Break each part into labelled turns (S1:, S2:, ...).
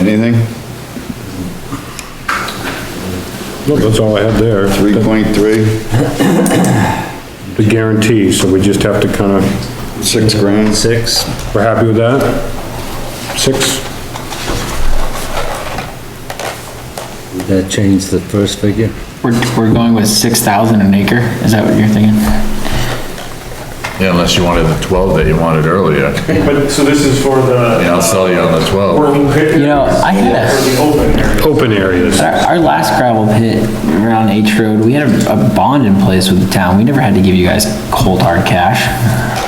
S1: anything?
S2: No, That's all I had there,
S1: Three point three,
S2: the guarantee, so we just have to kind of,
S1: six grand,
S3: Six,
S2: we're happy with that? Six?
S3: that changed the first figure?
S4: We're, we're going with six thousand an acre, is that what you're thinking?
S5: Yeah, unless you wanted the twelve that you wanted earlier.
S6: But, so this is for the,
S5: Yeah, I'll sell you on the twelve.
S6: we're,
S4: You know, I had a.
S6: the open area.
S2: Open areas.
S4: Our, our last gravel pit around H Road, we had a, a bond in place with the town. We never had to give you guys cold hard cash.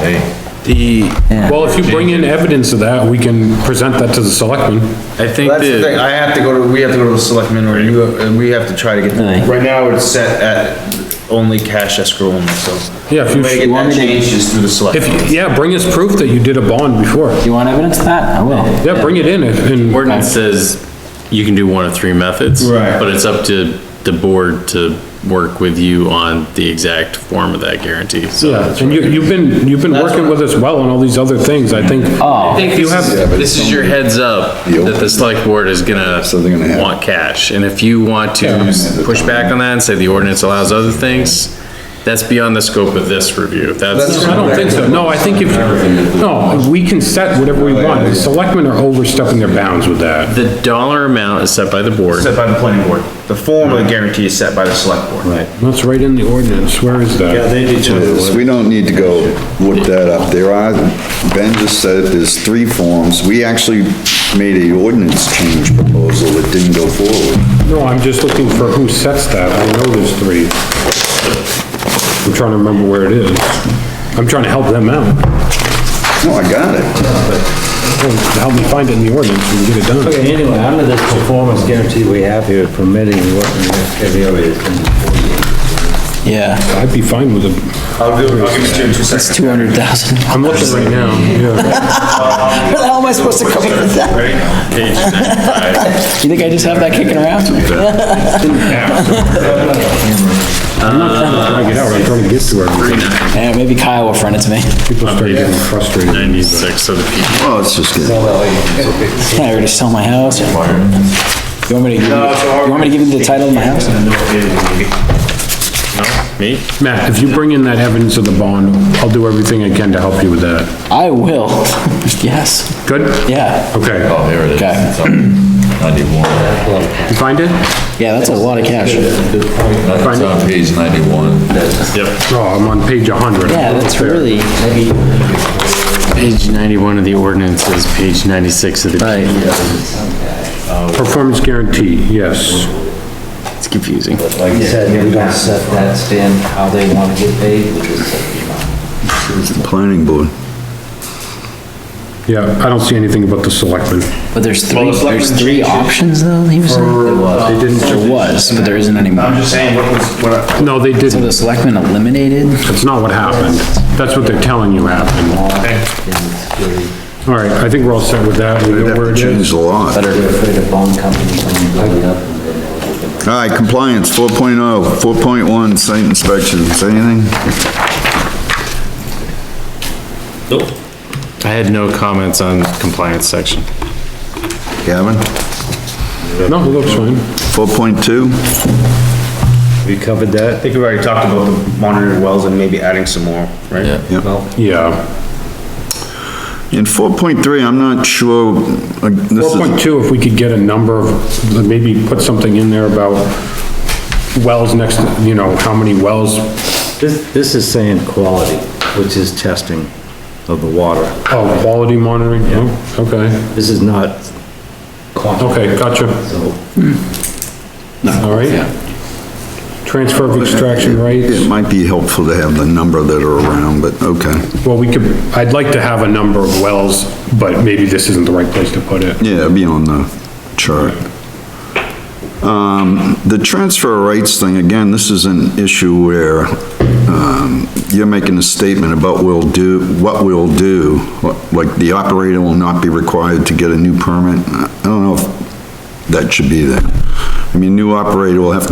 S5: Hey,
S7: The,
S2: Well, if you bring in evidence of that, we can present that to the selectmen.
S7: I think
S8: That's the thing,
S7: the,
S8: I have to go to, we have to go to the selectmen, or you, and we have to try to get,
S4: Really?
S8: right now it's set at only cash escrow only, so.
S2: Yeah, if
S8: The way to
S2: you,
S8: get
S4: want
S8: that
S4: me to-
S8: changed is through the selectmen.
S2: if, yeah, bring us proof that you did a bond before.
S4: Do you want evidence of that? I will.
S2: Yeah, bring it in and, and
S7: ordinance says you can do one of three methods.
S8: Right.
S7: But it's up to the board to work with you on the exact form of that guarantee, so.
S2: Yeah, and you, you've been, you've been working with us well on all these other things, I think.
S4: Oh.
S7: I think you have, this is your heads up, that the select board is gonna
S1: So they're gonna have-
S7: want cash, and if you want to push back on that and say the ordinance allows other things, that's beyond the scope of this review, that's.
S2: I don't think so, no, I think if, no, we can set whatever we want, the selectmen are overstepping their bounds with that.
S7: The dollar amount is set by the board.
S8: Set by the planning board. The form of the guarantee is set by the select board. Right.
S2: That's right in the ordinance, where is that?
S1: So we don't need to go look that up, there are, Ben just said there's three forms, we actually made a ordinance change proposal that didn't go forward.
S2: No, I'm just looking for who sets that, I know there's three. I'm trying to remember where it is, I'm trying to help them out,
S1: No, I got it,
S2: help me find it in the ordinance and get it done.
S3: Okay, anyway, under this performance guarantee we have here permitting what the heavy area is.
S4: Yeah,
S2: I'd be fine with it,
S8: I'll do, I'll give it to you in two seconds.
S4: it's two hundred thousand.
S2: I'm looking right now, yeah.
S4: Where the hell am I supposed to come up with that? You think I just have that kicking around?
S2: I'm not trying to drag it out, I'm trying to get to everything,
S4: Yeah, maybe Kyle will front it to me.
S2: people start getting frustrated.
S7: Ninety-six of the people.
S1: oh, it's just getting.
S4: Can I already sell my house? You want me to, give you you want me to give you the title of my house?
S7: Me?
S2: Matt, if you bring in that evidence of the bond, I'll do everything I can to help you with that.
S4: I will. Yes,
S2: Good?
S4: yeah,
S2: Okay.
S5: oh, there it is.
S4: Okay.
S5: It's on- Ninety-one.
S2: You find it?
S4: yeah, that's a lot of cash. Yeah,
S5: It's on page ninety-one.
S2: Oh, I'm on page 100.
S4: that's really, maybe,
S3: Page ninety-one of the ordinance is page ninety-six of the.
S4: right.
S2: Performance guarantee, yes.
S3: It's confusing.
S9: Like you said, we don't set that stand how they want to get paid, we just set the amount.
S1: It's the planning board.
S2: Yeah, I don't see anything about the selectmen.
S4: But there's three, there's three options though, he was saying?
S2: They didn't,
S4: There was, but there isn't anymore.
S8: I'm just saying, what was, what, I-
S2: no, they
S4: So
S2: didn't.
S4: the selectmen eliminated?
S2: That's not what happened. That's what they're telling you happened. All right, I think we're all set with that. We
S1: We'd
S2: know
S1: have
S2: where
S1: to
S2: it
S1: change
S2: is.
S1: the law. All
S9: They're afraid of bond companies when you build it up.
S1: right, compliance, oh, 4.0, 4.1, site inspections, anything?
S7: I had no comments on compliance section.
S1: Gavin?
S2: No, it looks fine.
S1: 4.2?
S3: We covered that.
S8: I think we already talked about the monitored wells and maybe adding some more, right? Yeah.
S2: Yeah.
S1: In 4.3, I'm not sure, like, this is,
S2: 4.2, if we could get a number of, maybe put something in there about wells next, to you know, how many wells.
S3: This, this is saying quality, which is testing of the water.
S2: Oh, quality monitoring? Oh, Okay.
S3: This is not quantity.
S2: Okay, gotcha. All right. Transfer of extraction
S1: it
S2: rates,
S1: might be helpful to have the number that are around, but okay.
S2: well, we could, I'd like to have a number of wells, but maybe this isn't the right place to put it.
S1: Yeah, it'd be on the chart. Um, the transfer rights thing, again, this is an issue where, um, you're making a statement about we'll do, what we'll do, like the operator will not be required to get a new permit. I don't know if that should be there. I mean, new operator will have to